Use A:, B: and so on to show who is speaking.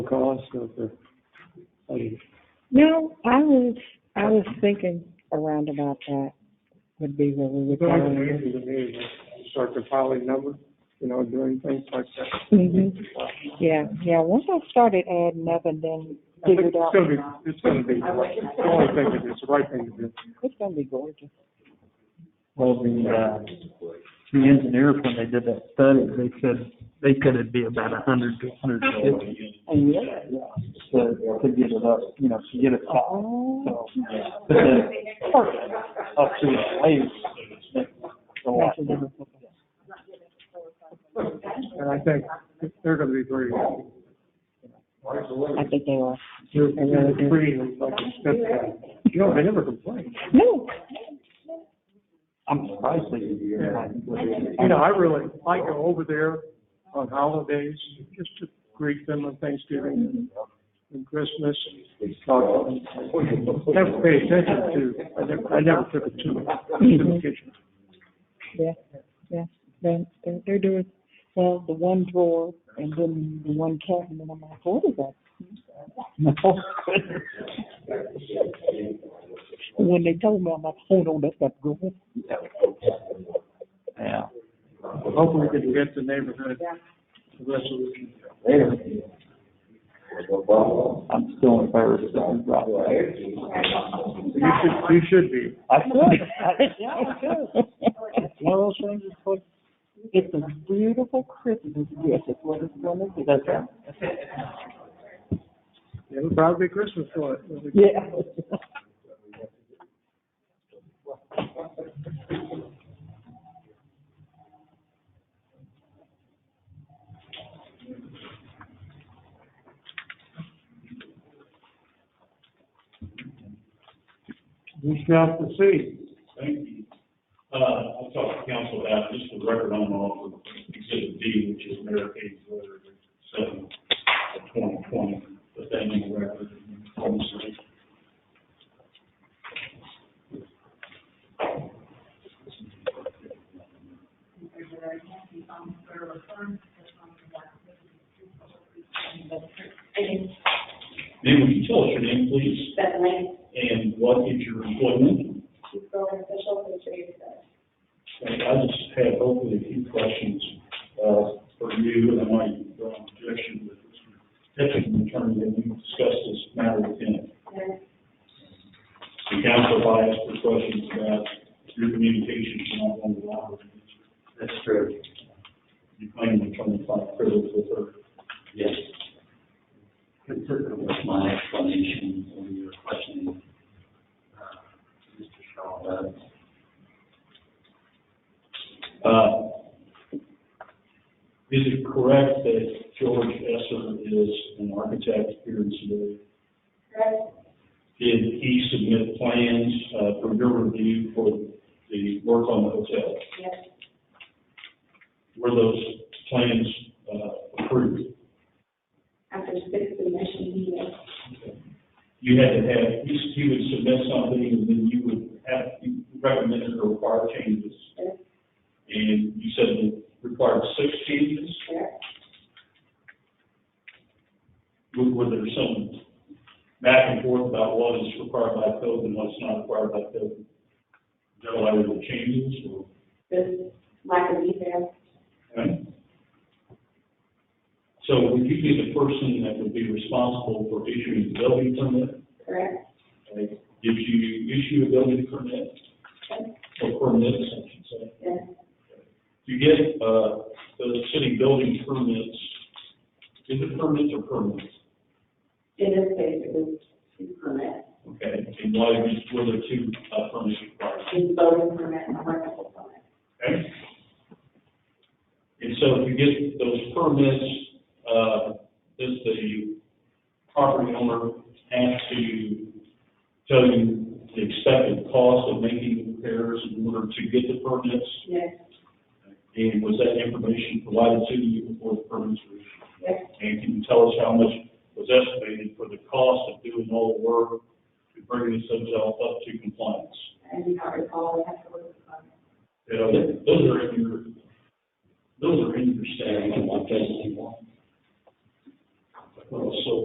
A: cost or for, I mean,
B: No, I was, I was thinking around about that would be what we would.
A: it's always an easy to do, but start compiling numbers, you know, doing things like that.
B: Mhm. Yeah, yeah, once I started adding up and then
A: I think
B: figured
A: It's
B: out,
A: gonna be, it's gonna be, the right- it's the only thing to do, it's the right thing to do.
B: it's gonna be gorgeous.
C: Well, the, uh, the engineers, when they did that study, they said, they said it'd be about a hundred to a hundred and fifty.
B: And yeah.
C: To, to get it up, you know, to get it up,
B: Oh,
C: so. But then, up to the waves, that's a lot.
B: Oh, that's a different thing.
A: And I think they're gonna be very happy.
B: I think they are.
A: They're, they're free, and like, that's, you know, they never complain.
B: No,
C: I'm surprised they did it.
A: You know, I really, I go over there on holidays, just to greet them on Thanksgiving and Christmas. and talk to them. Never pay attention to, I never, I never took a tour to the kitchen.
B: yeah, yeah, they're, they're, they're doing, well, the one drawer and then the one cabinet, I'm like, what is that?
C: No.
B: When they told me, I'm like, hold on, that's not good.
C: Yeah.
A: Hopefully we can get the neighborhood a resolution.
C: I'm still embarrassed that we dropped that.
A: You should, you should be.
C: I could, I- yeah, I could. It's One of those things, it's like,
B: It's a beautiful Christmas gift, it's what it's gonna be.
C: that's right.
A: It'll probably be Christmas for it. It'll be-
B: Yeah.
A: We shall proceed.
D: Thank you. Uh, I'll talk to council about just the record on off of exhibit D, which is Medicaid letter seven of twenty twenty, but that new record. Then would you tell us your name, please,
E: Stephanie,
D: and what is your employment?
E: she's building official for the city of Stephanie.
D: And I just had hopefully a few questions, uh, for you, and I might go on objection with Mr. Hitchens, attorney, that you discussed this matter with him.
E: And
D: The council bias for questions about your communications and not on the law. That's true. You claim to try to fight privilege with her.
F: Yes. Consistent with my explanation when you were questioning, uh, Mr. Shaw, about
D: Uh, Is it correct that George Esser is an architect here in Sedalia?
E: Greg,
D: Did he submit plans uh, for your review for the work on the hotel?
E: yes,
D: Were those plans uh, approved?
E: after six submissions, he made,
D: You had to have, he he would submit something, and then you would have, you recommended or required changes.
E: Yes.
D: And you said it required six changes?
E: correct?
D: Were were there some back and forth about what is required by code and what's not required by code? Joe, I would changes or?
E: This lack of detail,
D: Right? So would you be the person that would be responsible for issuing the building permit?
E: correct?
D: Like, Did you issue a building permit or permits, I should say?
E: Yes,
D: You get, uh, the city building permits, is it permits or permits?
E: in this case, it was two permits,
D: Okay, and why were there two uh, permits required?
E: his building permit and a rental permit.
D: Okay? And so if you get those permits, uh, does the property owner have to tell you the expected cost of making repairs in order to get the permits?
E: Yes,
D: And was that information provided to you before the permits were issued?
E: yes,
D: And can you tell us how much was estimated for the cost of doing all the work to bring this hotel up to compliance?
E: I do not recall, I have to look at
D: You know, that- those are in your, those are in your staff.
F: saying, I'm not testing one.
D: Well, so